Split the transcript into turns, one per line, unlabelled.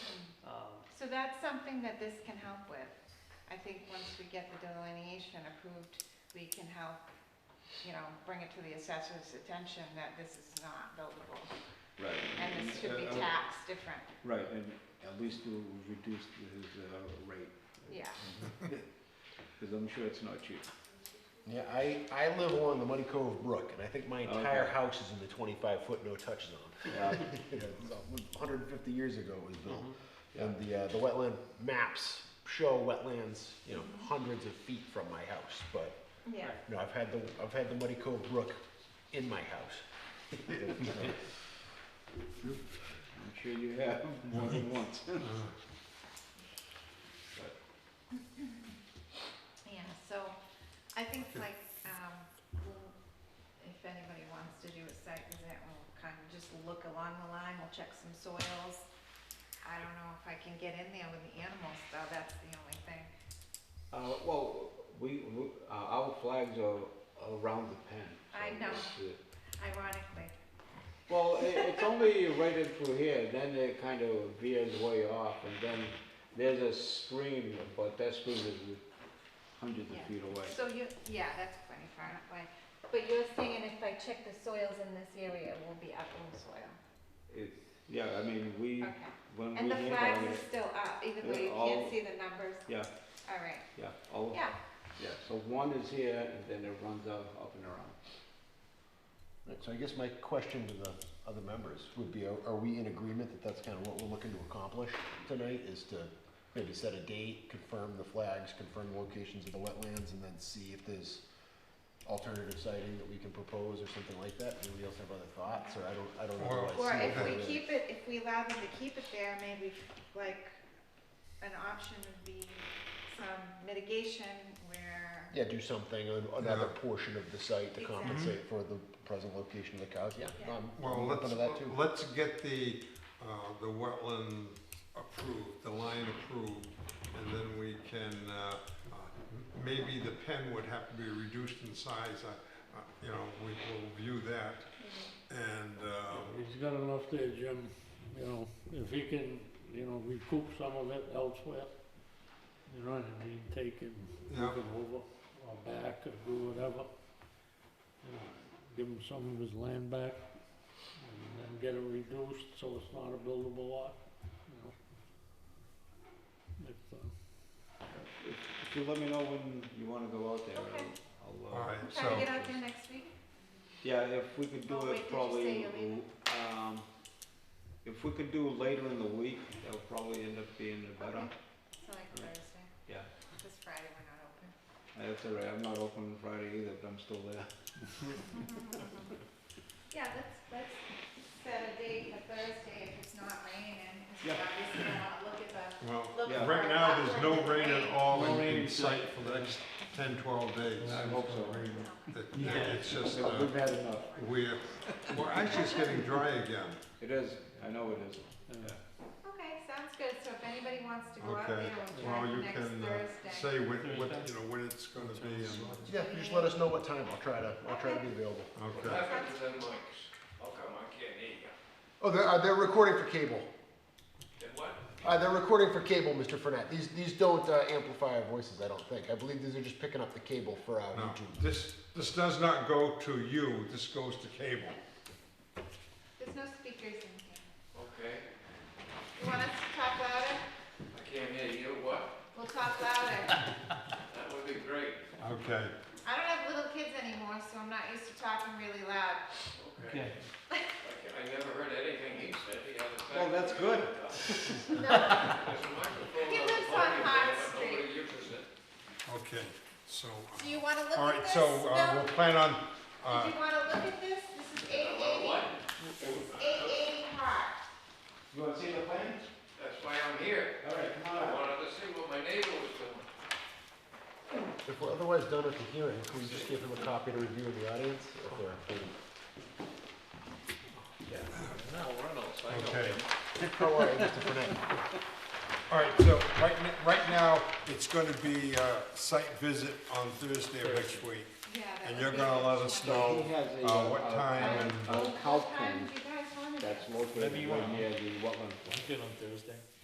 that's something that this can help with. I think once we get the delineation approved, we can help, you know, bring it to the assessor's attention that this is not buildable.
Right.
And this should be
Uh, uh,
taxed different,
Right, and at least we'll reduce his uh, rate,
yeah.
because I'm sure it's not cheap.
Yeah, I, I live along the Muddy Cove Brook, and I think my entire
Okay.
house is in the twenty-five foot no touch zone. Hundred and fifty years ago it was built, and the, uh, the wetland maps show wetlands, you know, hundreds of feet from my house, but,
Yeah.
no, I've had the, I've had the Muddy Cove Brook in my house.
I'm sure you have more than once.
Yeah, so I think like, um, we'll- if anybody wants to do a site visit, we'll kind of just look along the line, we'll check some soils. I don't know if I can get in there with the animals though, that's the only thing.
Uh, well, we, we- uh, our flags are around the pen. so
I know.
it's, uh,
Ironically,
Well, i it's only right in through here, then it kind of veers way off, and then there's a stream, but that stream is
Hundreds of
Yeah.
feet away.
so you, yeah, that's plenty far enough away. But you're saying if I check the soils in this area, it will be upland soil?
It- Yeah, I mean, we,
Okay.
when we
And the
made
flags
all
are
this,
still up, either way, you
Yeah, all-
can't see the numbers?
yeah,
All right,
yeah, all,
yeah,
yeah.
So one is here, and then it runs out up and around.
Right, so I guess my question to the other members would be, are, are we in agreement that that's kind of what we're looking to accomplish tonight, is to maybe set a date, confirm the flags, confirm the locations of the wetlands, and then see if there's alternative sighting that we can propose or something like that? Anybody else have other thoughts, or I don't, I don't know. how
Or
I see
if
it.
we keep it, if we allow them to keep it there, maybe like, an option would be some mitigation where,
Yeah, do something on another portion of the site to
Exactly.
compensate for the present location of the cows, yeah,
Yeah.
I'm,
Well,
I'm open
let's,
to that too.
let's get the, uh, the wetland approved, the line approved, and then we can, uh, uh, maybe the pen would have to be reduced in size, I- I- you know, we will view that. And, um,
He's got enough there, Jim, you know, if he can, you know, recoup some of it elsewhere, you know, and he can take and move
Yeah.
it over or back or do whatever. you know, Give him some of his land back and then get it reduced so it's not a buildable lot, you know. If, uh,
If if you let me know when you want to go out there,
Okay.
I'll, I'll, uh,
all right, so.
try to get out there next week?
Yeah, if we could do
Oh, wait, did
it
you say
probably,
you're leaving?
um, if we could do later in the week, that would probably end up being better.
Okay. So like Thursday,
Yeah,
this Friday we're not open.
that's all right, I'm not open Friday either, but I'm still there.
Mm-hmm. Yeah, let's, let's set a date for Thursday if it's not raining, because we
Yeah.
obviously don't wanna look at the,
Well,
look for
Yeah.
right now, there's no
upland
rain at all
No
in-
rain
in
in
sight for the next 10, 12 days.
I hope so.
It- It's just,
Yeah,
uh,
We've had enough.
we're, we're actually it's getting dry again.
It is, I know it is.
and-
Okay, sounds good, so if anybody wants to go out
Okay.
there, we'll
Well,
try
you
next
can uh,
Thursday.
say when, what, you know, when it's gonna be and,
Yeah, you just let us know what time, I'll try to, I'll try to be available.
okay.
them mics. How Oh, come I can't hear you?
Oh, they're, uh, they're recording for cable.
Did what?
Uh, they're recording for cable, Mr. Fournette. These these don't uh, amplify our voices, I don't think. I believe these are just picking up the cable for uh, our
No,
YouTube.
this, this does not go to you, this goes to cable.
There's no speakers in here.
Okay,
You want us to talk louder?
I can't hear you, what?
We'll talk louder.
That would be great.
Okay,
I don't have little kids anymore, so I'm not used to talking really loud.
Okay. I- I never heard anything he said the other time.
Well, that's good.
No,
There's a microphone
He
on the
lives on
podium,
High
but nobody uses it.
okay, so, uh,
do you wanna look
all
at
right,
this?
so uh,
No?
we'll plan on,
Do
uh,
you wanna look at this? This is eight
Well,
eighty,
what?
eight eighty Park.
You wanna see the plans?
That's why I'm here.
All right, come
I
on.
wanted to see what my neighbor was doing.
If we're otherwise done at the hearing, can we just give them a copy to review in the audience? If they're included.
No, Reynolds, I
okay.
How are you, Mr. Fournette?
All right, so right, n- right now, it's gonna be uh site visit on Thursday of next week.
Yeah, that
And
would
you're
be
gonna
good.
let us know
He has a,
uh, what
uh,
time and,
Uh,
Uh, cow
what time
pen.
do you guys want it?
That's located right near the wetland.